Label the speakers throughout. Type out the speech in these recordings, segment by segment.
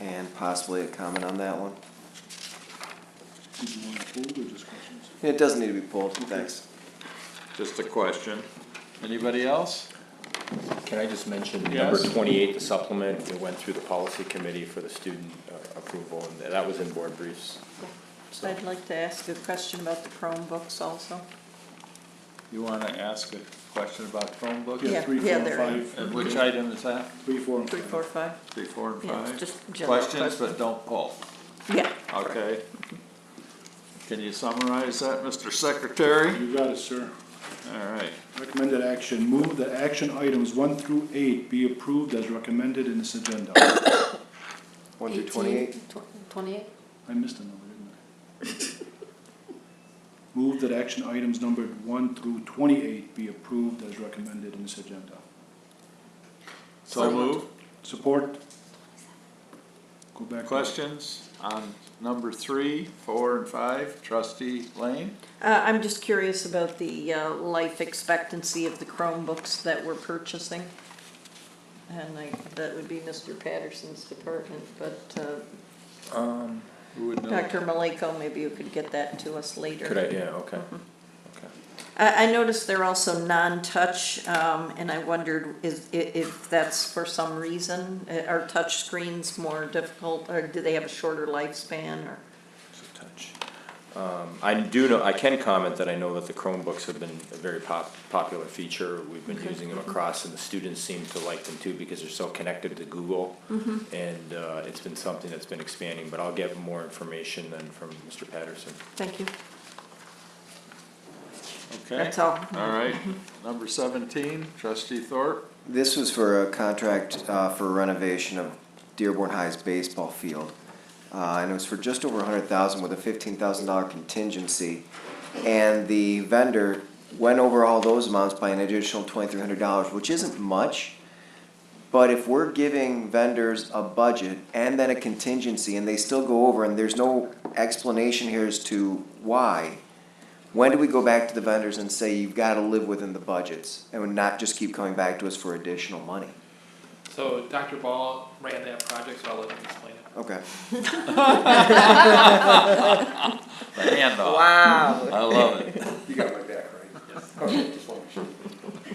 Speaker 1: and possibly a comment on that one.
Speaker 2: Did you want to hold or just questions?
Speaker 1: It doesn't need to be pulled, thanks.
Speaker 3: Just a question. Anybody else?
Speaker 4: Can I just mention number
Speaker 3: Yes.
Speaker 4: twenty-eight, the supplement, it went through the policy committee for the student uh, approval, and that was in board briefs.
Speaker 5: I'd like to ask a question about the Chromebooks also.
Speaker 3: You wanna ask a question about Chromebook?
Speaker 2: Yeah,
Speaker 5: Yeah,
Speaker 2: three,
Speaker 5: yeah,
Speaker 2: four,
Speaker 5: there.
Speaker 2: five.
Speaker 3: And which item is that?
Speaker 2: Three, four, and
Speaker 5: Three,
Speaker 2: five.
Speaker 5: four, five?
Speaker 3: Three, four, and
Speaker 5: Yeah,
Speaker 3: five?
Speaker 5: just general
Speaker 3: Questions, but don't pull,
Speaker 5: Yeah.
Speaker 3: okay? Can you summarize that, Mr. Secretary?
Speaker 2: You got it, sir.
Speaker 3: All right.
Speaker 2: Recommended action, move that action items one through eight be approved as recommended in this agenda.
Speaker 1: One through twenty-eight,
Speaker 5: Twenty-eight?
Speaker 2: I missed a number, didn't I? Move that action items numbered one through twenty-eight be approved as recommended in this agenda.
Speaker 3: So move.
Speaker 2: Support? Go back.
Speaker 3: Questions on number three, four, and five? Trustee Lane?
Speaker 5: Uh, I'm just curious about the, uh, life expectancy of the Chromebooks that we're purchasing. And I, that would be Mr. Patterson's department, but, uh,
Speaker 3: Who would know?
Speaker 5: Dr. Maleko, maybe you could get that to us later.
Speaker 4: Could I, yeah, okay.
Speaker 5: I, I noticed they're also non-touch, um, and I wondered is, i- if that's for some reason, Uh, are touch screens more difficult, or do they have a shorter lifespan, or?
Speaker 4: So touch. Um, I do know, I can comment that I know that the Chromebooks have been a very pop, popular feature. We've been using them across and the students seem to like them too because they're so connected to Google. And, uh, it's been something that's been expanding, but I'll get more information then from Mr. Patterson.
Speaker 5: Thank you.
Speaker 3: Okay.
Speaker 5: That's all.
Speaker 3: All right. Number seventeen, Trustee Thorpe?
Speaker 1: this was for a contract, uh, for renovation of Dearborn High's baseball field. Uh, and it was for just over a hundred thousand with a fifteen thousand dollar contingency. And the vendor went over all those amounts by an additional twenty-three hundred dollars, which isn't much. But if we're giving vendors a budget and then a contingency and they still go over and there's no explanation here as to why, when do we go back to the vendors and say, you've got to live within the budgets and not just keep coming back to us for additional money?
Speaker 6: So Dr. Ball ran that project, so I'll let him explain it.
Speaker 1: Okay.
Speaker 3: The handoff.
Speaker 5: Wow.
Speaker 3: I love it.
Speaker 7: You got my back, right? Okay, just wanted to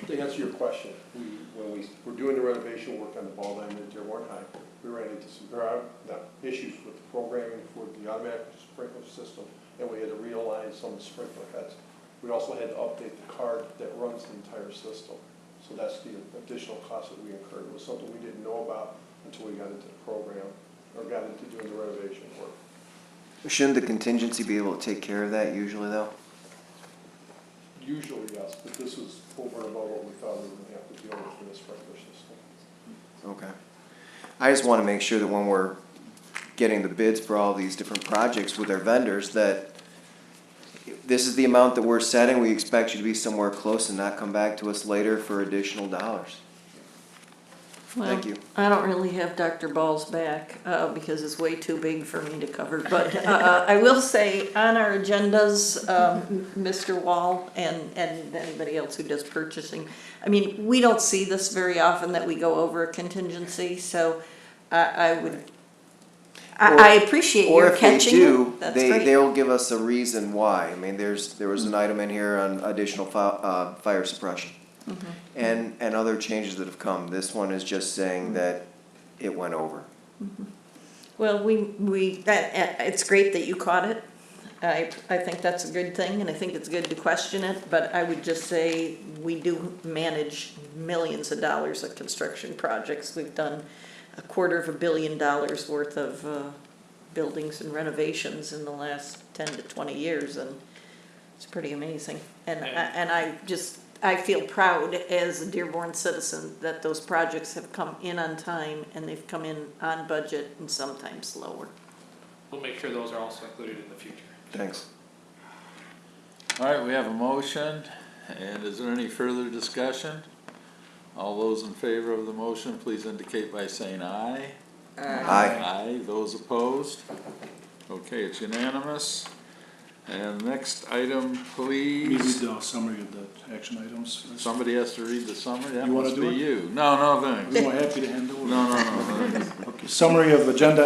Speaker 7: to answer your question, we, when we were doing the renovation work on the ball diamond at Dearborn High, we ran into some, uh, no, issues with the programming for the automatic sprinkler system, and we had to realign some of the sprinkler heads. We also had to update the card that runs the entire system, so that's the additional cost that we incurred, it was something we didn't know about until we got into the program, or got into doing the renovation work.
Speaker 1: Shouldn't the contingency be able to take care of that usually, though?
Speaker 7: Usually, yes, but this was over and above what we thought we were gonna have to deal with for this sprinkler system.
Speaker 1: Okay. I just want to make sure that when we're getting the bids for all these different projects with our vendors, that this is the amount that we're setting, we expect you to be somewhere close and not come back to us later for additional dollars. Thank you.
Speaker 5: I don't really have Dr. Ball's back, uh, because it's way too big for me to cover, but, uh, I will say, on our agendas, um, Mr. Wall and, and anybody else who does purchasing, I mean, we don't see this very often that we go over a contingency, so I, I would, I, I appreciate
Speaker 1: Or
Speaker 5: your
Speaker 1: if they
Speaker 5: catching
Speaker 1: do,
Speaker 5: it, that's
Speaker 1: they,
Speaker 5: great. Mm-hmm.
Speaker 1: they'll give us a reason why. I mean, there's, there was an item in here on additional fi- uh, fire suppression.
Speaker 5: Mm-hmm.
Speaker 1: And, and other changes that have come. This one is just
Speaker 5: Mm-hmm.
Speaker 1: saying that it went over.
Speaker 5: Well, we, we, that, uh, it's great that you caught it. I, I think that's a good thing, and I think it's good to question it, but I would just say, we do manage millions of dollars of construction projects. We've done a quarter of a billion dollars worth of, uh, buildings and renovations in the last ten to twenty years, and it's pretty amazing. And, I-
Speaker 6: Yeah.
Speaker 5: and I just, I feel proud as a Dearborn citizen that those projects have come in on time, and they've come in on budget and sometimes lower.
Speaker 6: We'll make sure those are also included in the future.
Speaker 1: Thanks.
Speaker 3: All right, we have a motion, and is there any further discussion? All those in favor of the motion, please indicate by saying aye.
Speaker 1: Aye.
Speaker 3: Aye, those opposed? Okay, it's unanimous. And next item,
Speaker 2: Maybe
Speaker 3: please,
Speaker 2: the summary of the action items.
Speaker 3: somebody has to read the summary, that
Speaker 2: You wanna
Speaker 3: must
Speaker 2: do
Speaker 3: be
Speaker 2: it?
Speaker 3: you. No, no, thanks.
Speaker 2: I'm happy to handle it.
Speaker 3: No, no, no, no.
Speaker 2: Summary of agenda